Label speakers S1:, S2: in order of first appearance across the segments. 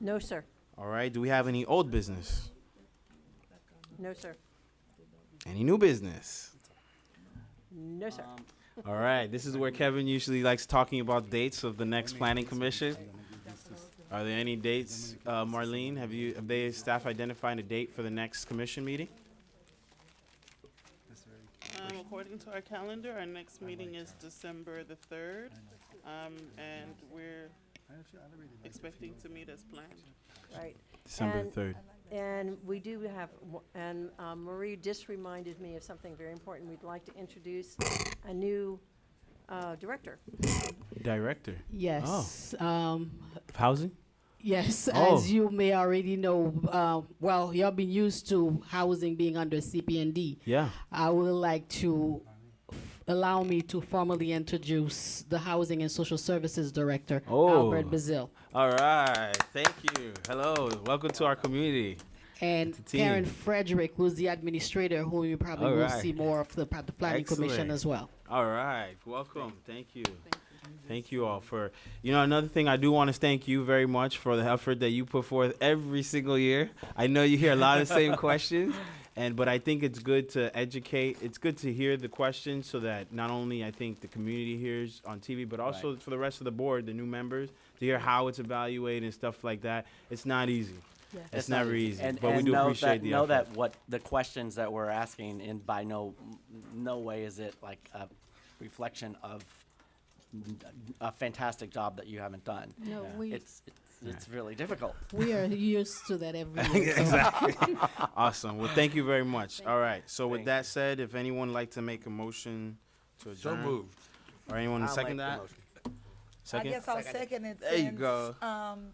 S1: No, sir.
S2: All right, do we have any old business?
S1: No, sir.
S2: Any new business?
S1: No, sir.
S2: All right, this is where Kevin usually likes talking about dates of the next planning commission. Are there any dates, uh, Marlene? Have you, have they, staff identified a date for the next commission meeting?
S3: Um, according to our calendar, our next meeting is December the third, um, and we're expecting to meet as planned.
S1: Right.
S2: December
S1: And-
S2: third.
S1: And we do have, w- and um, Marie just reminded me of something very important. We'd like to introduce a new uh, director.
S2: Director
S4: Yes. Um,
S2: of housing?
S4: yes,
S2: Oh.
S4: as you may already know, uh, well, you have been used to housing being under CPND.
S2: Yeah.
S4: I would like to f- allow me to formally introduce the Housing and Social Services Director,
S2: Oh.
S4: Albert Bazil,
S2: All right, thank you. Hello, welcome to our community.
S4: and
S2: Team.
S4: Karen Frederick, who's the administrator, who you probably will
S2: Alright.
S4: see more of the, the Planning
S2: Excellent.
S4: Commission as well.
S2: All right, welcome. Thank you. Thank you all for, you know, another thing I do want to thank you very much for the effort that you put forth every single year. I know you hear a lot of the same questions, and but I think it's good to educate. It's good to hear the questions so that not only I think the community hears on TV, but also for the rest of the board, the new members, to hear how it's evaluated and stuff like that. It's not easy. It's,
S5: not
S2: never easy,
S5: And,
S2: but we
S5: and
S2: do
S5: know
S2: appreciate
S5: that,
S2: the
S5: know
S2: effort.
S5: that what the questions that we're asking, and by no no way is it like a reflection of a fantastic job that you haven't done.
S4: No, we,
S5: It's it's, it's really difficult.
S4: we are used to that every year. so-
S2: Awesome. Well, thank you very much. All right. So with
S5: Thank
S2: that said, if anyone would like to make a motion to adjourn. Or anyone
S5: I'll
S2: second
S5: make the
S2: that?
S5: motion.
S6: I
S2: Second?
S6: guess I'll second it
S2: There you
S6: since,
S2: go.
S6: um,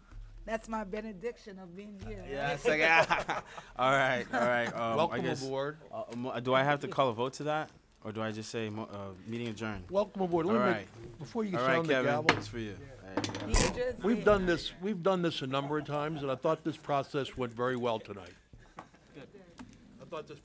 S6: that's my benediction of being here.
S2: Yeah, second. all right, all right. Um, I
S7: Welcome
S2: guess,
S7: aboard.
S2: uh, mo- do I have to call a vote to that? Or do I just say mo- uh, meeting adjourned?
S7: Welcome aboard. Let
S2: All
S7: me make-
S2: right.
S7: Before you
S2: All right,
S7: sound the
S2: Kevin.
S7: gavel,
S2: It's for you. There you go.
S6: You just
S7: we've
S6: did.
S7: done this, we've done this a number of times, and I thought this process went very well tonight. I thought this